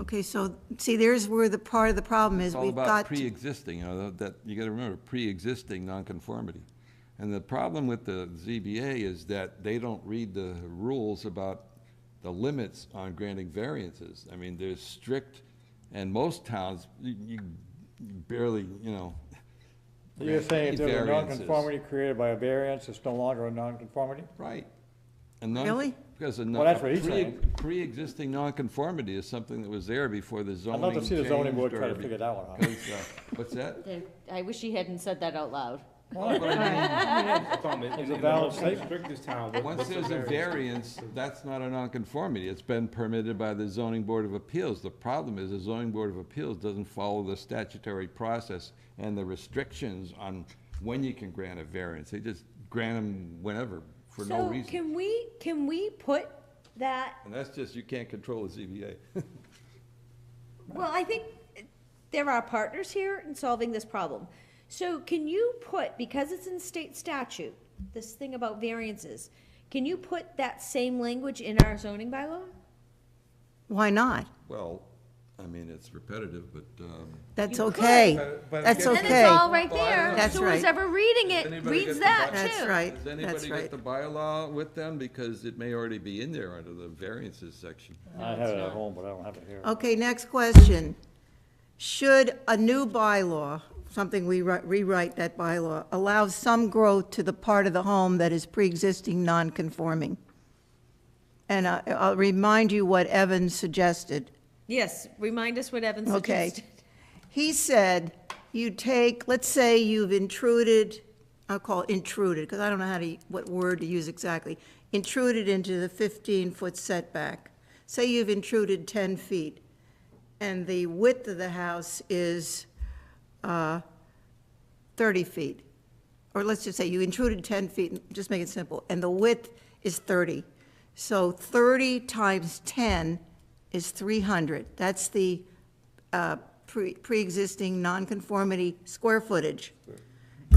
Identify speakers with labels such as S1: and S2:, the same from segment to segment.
S1: Okay, so, see, there's where the part of the problem is,
S2: It's all
S1: we've
S2: about
S1: got,
S2: pre-existing, you know, that, you gotta remember, pre-existing nonconformity. And the problem with the ZBA is that they don't read the rules about the limits on granting variances. I mean, there's strict, and most towns, you you barely, you know.
S3: So You're
S2: grant
S3: saying if
S2: any
S3: there's a
S2: variances.
S3: nonconformity created by a variance, it's no longer a nonconformity?
S2: Right. And non-
S1: Really?
S2: Because a
S3: Well,
S2: non,
S3: that's what
S2: pre,
S3: he's saying.
S2: pre-existing nonconformity is something that was there before the
S3: I'd
S2: zoning
S3: love to see the zoning board
S2: changed
S3: try to
S2: or
S3: figure that one out.
S2: because, uh, What's that?
S4: I wish he hadn't said that out loud.
S3: Well, but
S5: It's
S3: a valid statement.
S2: Once there's a variance, that's not a nonconformity. It's been permitted by the zoning board of appeals. The problem is the zoning board of appeals doesn't follow the statutory process and the restrictions on when you can grant a variance. They just grant them whenever, for no
S6: So
S2: reason.
S6: can we, can we put that,
S2: And that's just, you can't control the ZBA.
S6: well, I think there are partners here in solving this problem. So can you put, because it's in state statute, this thing about variances, can you put that same language in our zoning bylaw?
S1: why not?
S2: Well, I mean, it's repetitive, but, um,
S1: That's
S6: You could.
S1: okay,
S2: But- but
S1: that's
S2: again-
S6: And
S1: okay.
S6: it's all right
S2: Well, I don't know.
S6: there,
S1: That's
S6: so
S1: right.
S6: who's ever reading it
S2: Anybody
S6: reads
S2: get the
S6: that too.
S2: bi-
S1: That's right,
S2: does
S1: that's
S2: anybody
S1: right.
S2: get the bylaw with them? Because it may already be in there under the variances section.
S3: I have it at home, but I don't have it here.
S1: Okay, next question. Should a new bylaw, something we wri- rewrite that bylaw, allow some growth to the part of the home that is pre-existing non-conforming? And I- I'll remind you what Evan suggested.
S6: Yes, remind us what Evan
S1: Okay.
S6: suggested.
S1: He said, you take, let's say you've intruded, I'll call it intruded, because I don't know how to, what word to use exactly, intruded into the 15-foot setback. Say you've intruded 10 feet, and the width of the house is uh, 30 feet. Or let's just say you intruded 10 feet, just make it simple, and the width is 30. So 30 times 10 is 300. That's the uh, pre- pre-existing nonconformity square footage.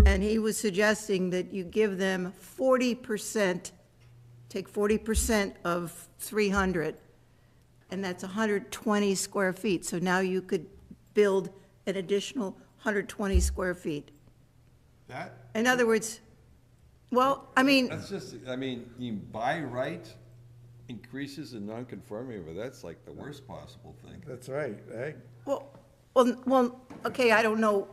S1: And he was suggesting that you give them forty percent, take forty percent of three hundred, and that's hundred twenty square feet. So now you could build an additional hundred twenty square feet.
S2: That,
S1: In other words, well, I mean,
S2: That's just, I mean, you buy right increases in nonconformity, but that's like the worst possible thing.
S7: That's right, eh?
S1: well, well, well, okay, I don't know.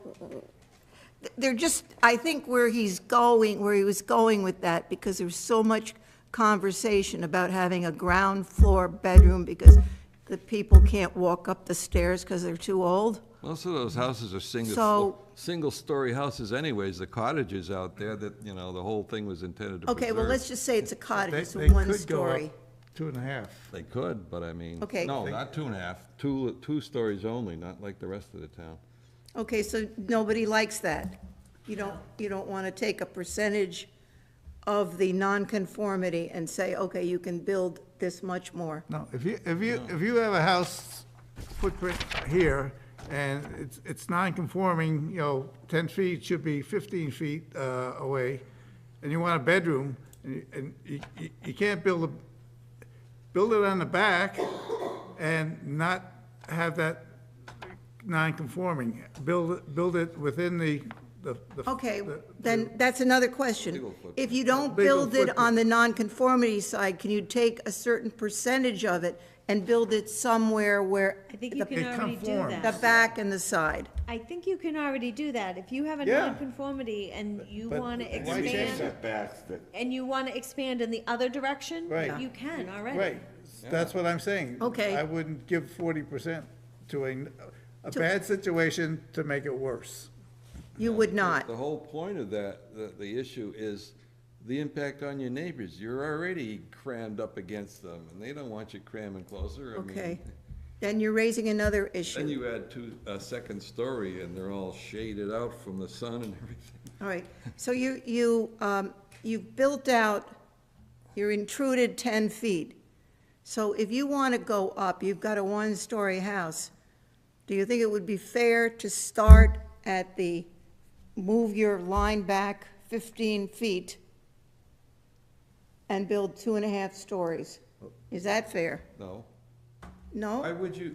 S1: They're just, I think where he's going, where he was going with that, because there was so much conversation about having a ground floor bedroom because the people can't walk up the stairs because they're too old.
S2: Most of those houses are single,
S1: So-
S2: flo- single-story houses anyways, the cottages out there that, you know, the whole thing was intended to preserve.
S1: Okay, well, let's just say it's a cottage,
S7: They-
S1: it's
S7: they
S1: a one
S7: could go up
S1: story.
S7: Two and a half.
S2: They could, but I mean,
S1: Okay.
S2: no, not two and a half, two, two stories only, not like the rest of the town.
S1: Okay, so nobody likes that. You don't, you don't want to take a percentage of the nonconformity and say, okay, you can build this much more.
S7: No, if you, if you, if you have a house footprint here and it's, it's non-conforming, you know, ten feet should be fifteen feet, uh, away, and you want a bedroom, and, you- and you, you- you can't build a, build it on the back and not have that non-conforming. Build, it- build it within the, the. the-
S1: Okay,
S7: the-
S1: then that's another question. If you don't
S7: Legal
S1: build it on the nonconformity side, can you take a certain percentage of it and build it somewhere where
S6: I think you
S1: the
S6: can already do
S7: conforms.
S1: the
S6: that.
S1: back and the side?
S6: I think you can already do that. If you have a
S7: Yeah.
S6: nonconformity and you
S7: but
S6: want to
S7: why change
S6: expand,
S8: setbacks that
S6: and you want to expand in the other direction,
S7: Right.
S6: you can already.
S7: Right, that's what I'm saying.
S1: Okay.
S7: I wouldn't give forty percent to a, a bad situation to make it worse.
S1: You would not.
S2: The whole point of that, the, the issue is the impact on your neighbors. You're already crammed up against them, and they don't want you cramming closer. I mean,
S1: Okay. Then you're raising another
S2: Then
S1: issue.
S2: you add two, a second story, and they're all shaded out from the sun and everything.
S1: All right. So you, you, um, you've built out, you're intruded 10 feet. So if you want to go up, you've got a one-story house, do you think it would be fair to start at the, move your line back 15 feet and build two and a half stories? Is that fair?
S2: No? Why
S1: No?
S2: would you,